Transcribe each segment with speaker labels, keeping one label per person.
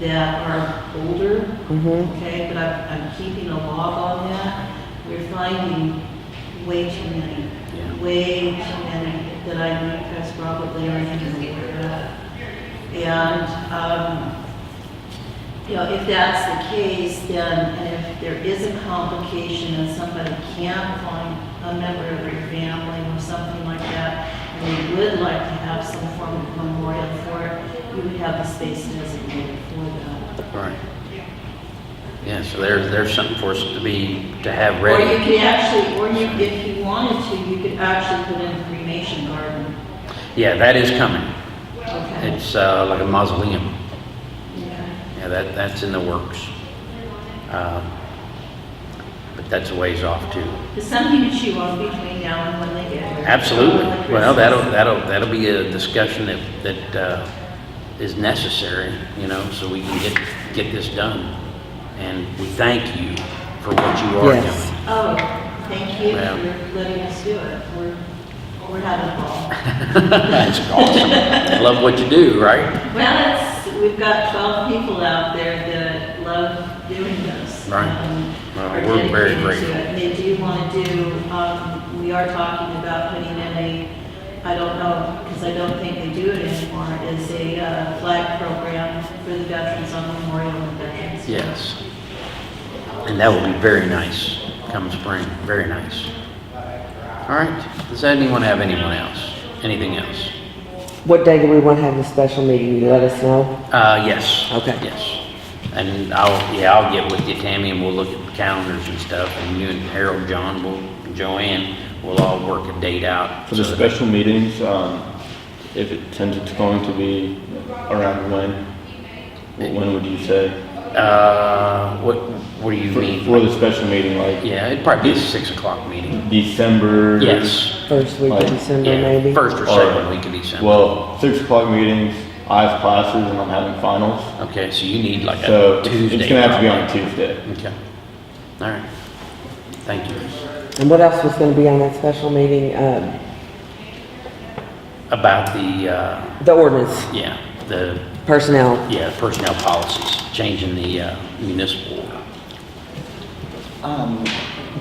Speaker 1: that are older,
Speaker 2: Mm-hmm.
Speaker 1: okay, but I'm, I'm keeping a log on that. We're finding way too many,
Speaker 2: Yeah.
Speaker 1: way too many that I need to press Robert Larry and get rid of. And, um, you know, if that's the case, then, and if there is a complication and somebody can't find a member of your family or something like that, and they would like to have some form of memorial for it, you would have the space designated for that.
Speaker 2: Right. Yeah, so there's, there's something for us to be, to have
Speaker 1: Or you
Speaker 2: ready.
Speaker 1: could actually, or you, if you wanted to, you could actually put in a cremation garden.
Speaker 2: Yeah, that is coming.
Speaker 1: Okay.
Speaker 2: It's uh, like a mausoleum.
Speaker 1: Yeah.
Speaker 2: Yeah, that, that's in the works. Um, But that's a ways off too.
Speaker 1: There's something that you want between now and when they get here.
Speaker 2: Absolutely.
Speaker 1: Like
Speaker 2: Well,
Speaker 1: Christmas.
Speaker 2: that'll, that'll, that'll be a discussion that, that uh, is necessary, you know, so we can get, get this done. And we thank you for what you are
Speaker 3: Yes.
Speaker 2: doing.
Speaker 1: Oh, thank you
Speaker 2: Well.
Speaker 1: for letting us do it. We're, we're having a ball.
Speaker 2: That's awesome. I Love what you do, right?
Speaker 1: Well, it's, we've got 12 people out there that love doing this.
Speaker 2: Right.
Speaker 1: Um,
Speaker 2: Well,
Speaker 1: are
Speaker 2: we're very
Speaker 1: dedicated to
Speaker 2: grateful.
Speaker 1: it. They do want to do, um, we are talking about putting in a, I don't know, because I don't think they do it anymore, is a uh, flag program for the veterans on Memorial and Veterans. Day.
Speaker 2: Yes. And that will be very nice come spring, very nice. All right, does anyone have anyone else? Anything else?
Speaker 3: What day do we want to have the special meeting? You let us know?
Speaker 2: Uh, yes.
Speaker 3: Okay.
Speaker 2: Yes. And I'll, yeah, I'll get with you, Tammy, and we'll look at calendars and stuff, and you and Harold, John, will, Joanne, we'll all work a date out.
Speaker 4: For the
Speaker 2: so that-
Speaker 4: special meetings, um, if it tends, it's going to be around when? Wh- When would you say?
Speaker 2: Uh, what, what do you
Speaker 4: For,
Speaker 2: mean?
Speaker 4: for the special meeting, like
Speaker 2: Yeah, it'd probably be a six o'clock meeting.
Speaker 4: December?
Speaker 2: Yes.
Speaker 3: First week of
Speaker 4: Like,
Speaker 3: December,
Speaker 2: Yeah,
Speaker 3: maybe?
Speaker 2: first or
Speaker 4: Or-
Speaker 2: second week of December.
Speaker 4: Well, six o'clock meetings, I have classes and I'm having finals.
Speaker 2: Okay, so you need like
Speaker 4: So
Speaker 2: a
Speaker 4: it's-
Speaker 2: Tuesday.
Speaker 4: it's gonna have to be on Tuesday.
Speaker 2: Okay. All right. Thank you.
Speaker 3: And what else was going to be on that special meeting? Um,
Speaker 2: About the, uh,
Speaker 3: The ordinance,
Speaker 2: yeah, the,
Speaker 3: personnel.
Speaker 2: yeah, personnel policies, changing the uh, municipal order.
Speaker 5: Um,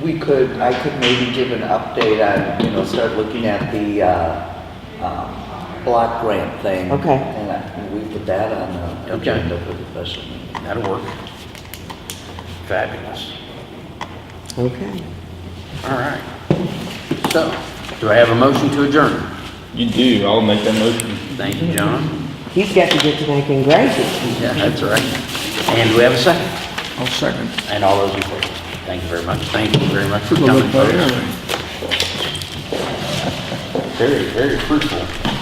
Speaker 5: we could, I could maybe give an update on, you know, start looking at the, uh, um, block grant thing.
Speaker 3: Okay.
Speaker 5: And I, and we put that on the
Speaker 2: Okay.
Speaker 5: agenda for the special meeting.
Speaker 2: That'll work. Fabulous.
Speaker 3: Okay.
Speaker 2: All right. So, do I have a motion to adjourn?
Speaker 4: You do, I'll make that motion.
Speaker 2: Thank you, John.
Speaker 3: He's got to get to making gravy.
Speaker 2: Yeah, that's right. And do we have a second? I'll second. And all those in favor? Thank you very much. Thank you very much for coming, folks. Very, very fruitful.